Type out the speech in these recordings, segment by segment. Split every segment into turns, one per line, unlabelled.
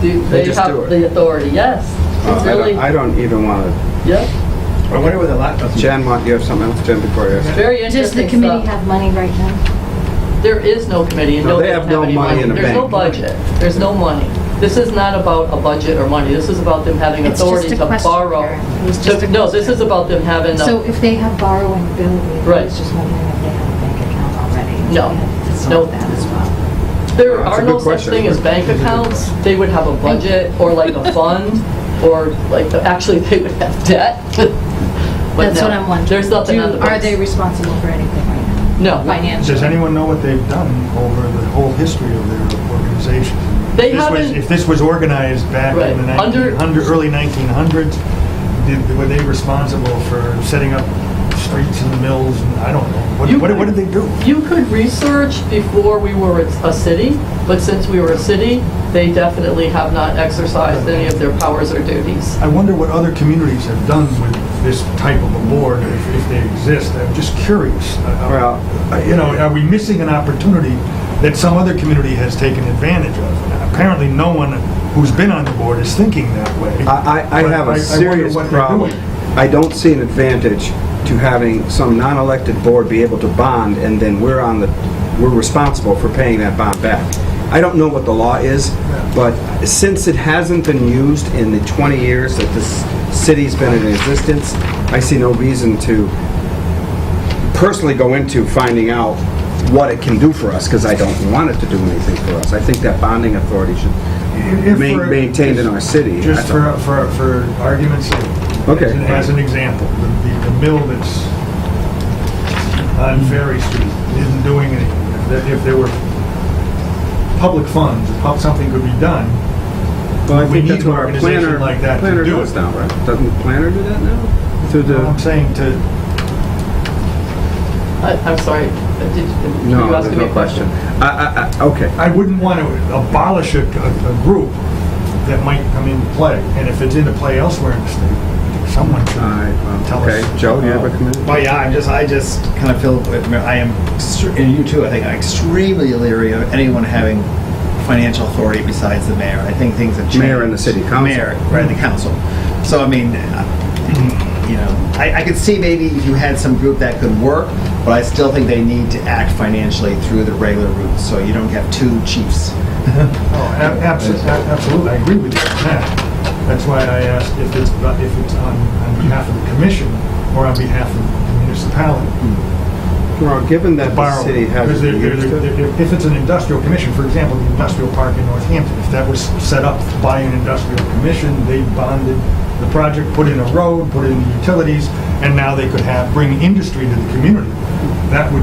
do,
They
they
just do
have
it.
the authority, yes.
Oh,
It's
I don't-
really,
I don't even want to,
yep,
I wonder where the laptop's.
Jen, want, you have something else, Jen, before you? ask?
very
Does the
interesting
committee
stuff.
have money right now?
There is no committee and
No,
no,
they
they
have
don't
no
have any
money
money.
in the
There's no
bank.
budget, there's no money. This is not about a budget or money, this is about them having
It's just
authority
a
to
question,
borrow.
Karen. It was just
To-
a
No, this
question.
is about them having,
So
a-
if they have borrowing ability, I
Right.
was just wondering if they have a bank account already.
No.
Yeah, it's
Nope.
not that as well.
there
That's a
are
good
no such
question.
thing as bank accounts. They would have a budget or like a fund or like, the- actually, they would have debt. But
That's
no,
what I'm wondering.
There's nothing
Do-
on the
Are they
books.
responsible for anything right
No.
now? Financially?
Does anyone know what they've done over the whole history of their organization?
They
This was-
haven't-
If this was organized back
Right.
in the
Under-
1900, early 1900s, did- were they responsible for setting up streets and mills? and I don't know. What-
You
What what
could-
did they do?
You could research before we were a city, but since we were a city, they definitely have not exercised any of their powers or duties.
I wonder what other communities have done with this type of a board, if if they exist. I'm just curious.
Well,
Uh, You know, are we missing an opportunity that some other community has taken advantage of? Apparently, no one who's been on the board is thinking that way.
I, I, I
But
have
I- I
a
wonder
serious
what they're
problem.
doing.
I don't see an advantage to having some non-elected board be able to bond, and then we're on the, we're responsible for paying that bond back. I don't know what the law is, but since it hasn't been used in the 20 years that this city's been in existence, I see no reason to personally go into finding out what it can do for us, because I don't want it to do anything for us. I think that bonding authority should
If- if
ma-
for-
maintained in our city.
Just
That's all.
for, for, for argument's sake.
Okay.
as an- As an example, the, the- the mill that's on Ferry Street isn't doing anything. If there- If there were public funds, if pub- something could be done,
Well, I
We
think
need
that's what our
an organization
planner,
like that to
planner
do
does
it.
now, right? Doesn't the planner do that now? Through
what I'm
the,
saying to,
I- I'm sorry, uh, did you were
no,
you
there's
asking me
no
a
question.
question?
I, I, I, okay.
I wouldn't want to abolish a, a- a group that might come into play, and if it's into play elsewhere in the state, someone should
All right, well,
tell us. Uh,
okay. Joe, do you have a comment?
Well, yeah, I'm just, I just kind of feel, with- I am, extre- and you too, I think, I'm extremely leery of anyone having financial authority besides the mayor. I think things have changed.
Mayor and the city council.
Mayor, right, the council. So, I mean, uh, you know, I, I could see maybe if you had some group that could work, but I still think they need to act financially through the regular route, so you don't have two chiefs.
Oh, ab- abso- ab- Absolutely, I agree with you on that. That's why I asked if it's, about- if it's on on behalf of the commission or on behalf of the municipality.
Well, given that the
Borrow.
city
Because
hasn't
there- there-
used it.
there- If it's an industrial commission, for example, the industrial park in Northampton, if that was set up by an industrial commission, they bonded the project, put in a road, put in utilities, and now they could have, bring industry to the community. That would,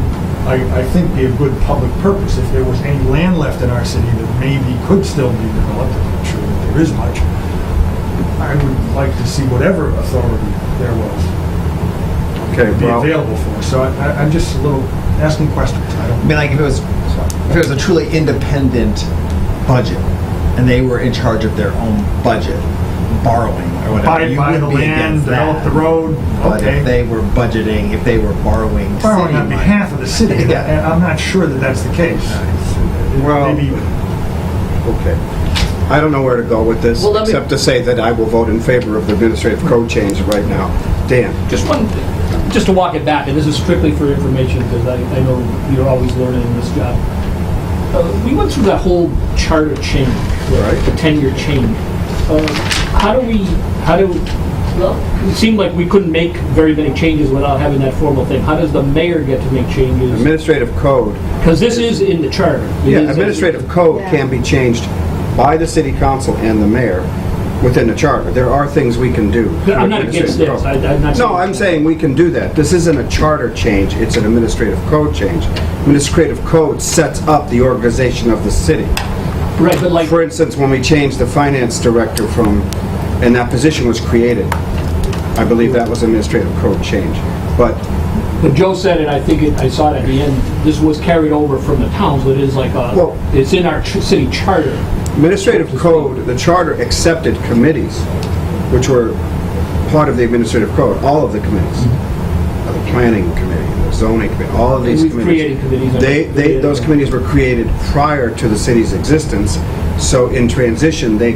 I, I think, be a good public purpose. If there was any land left in our city that maybe could still be developed, I'm not sure that there is much, I would like to see whatever authority there was
Okay,
be
well,
available for. So I- I, I'm just a little asking questions. I don't
I mean, like if it was, if it was a truly independent budget, and they were in charge of their own budget, borrowing or whatever,
Buy,
you
buy
would
the
be
land,
against that.
develop the road,
But if
okay.
they were budgeting, if they were borrowing city
Borrowing on
money-
behalf of the city, and
Yeah.
I'm not sure that that's the case.
Well-
Maybe,
okay. I don't know where to go with this,
Well, let me-
except to say that I will vote in favor of the administrative code change right now. Dan?
Just one, just to walk it back, and this is strictly for information, because I, I know you're always learning in this job. Uh, We went through that whole charter change,
Right.
the ten-year change. Uh, How do we, how do, well, it seemed like we couldn't make very many changes without having that formal thing. How does the mayor get to make changes?
Administrative code
Because this is in the charter. It
Yeah,
is-
administrative code
Yeah.
can be changed by the city council and the mayor within the charter. There are things we can do.
No, I'm not
with
against
administrative
this. I-
code.
I'm not
No,
saying-
I'm saying we can do that. This isn't a charter change, it's an administrative code change. Administrative code sets up the organization of the city.
Right, but like,
For instance, when we changed the finance director from, and that position was created, I believe that was administrative code change. But
when Joe said it, I think it, I saw it at the end, this was carried over from the towns, but it is like
Well-
a, it's in our ch- city charter.
Administrative code, the charter accepted committees, which were part of the administrative code, all of the committees. Uh, The planning committee, the zoning committee, all of these
We've
committees.
Mm-hmm. created committees.
They, they, those committees were created prior to the city's existence, so in transition, they